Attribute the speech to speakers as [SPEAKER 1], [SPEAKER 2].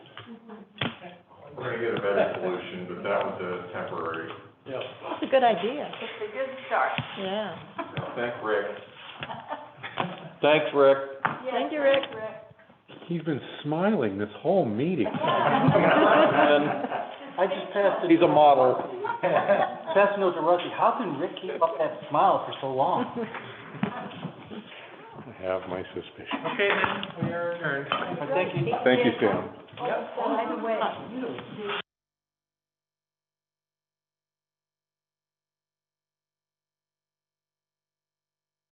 [SPEAKER 1] We're gonna get a better solution, but that was a temporary.
[SPEAKER 2] Yep.
[SPEAKER 3] That's a good idea,
[SPEAKER 4] It's a good start.
[SPEAKER 3] yeah.
[SPEAKER 1] Thank Rick.
[SPEAKER 2] Thanks, Rick.
[SPEAKER 3] Thank you, Rick.
[SPEAKER 5] He's been smiling this whole meeting.
[SPEAKER 6] I just passed it.
[SPEAKER 2] He's a model.
[SPEAKER 6] Passed note to Rusty, how can Rick keep up that smile for so long?
[SPEAKER 5] I have my suspicions.
[SPEAKER 1] Okay, then, we are adjourned.
[SPEAKER 6] But thank you.
[SPEAKER 5] Thank you, Sam.
[SPEAKER 4] By the way,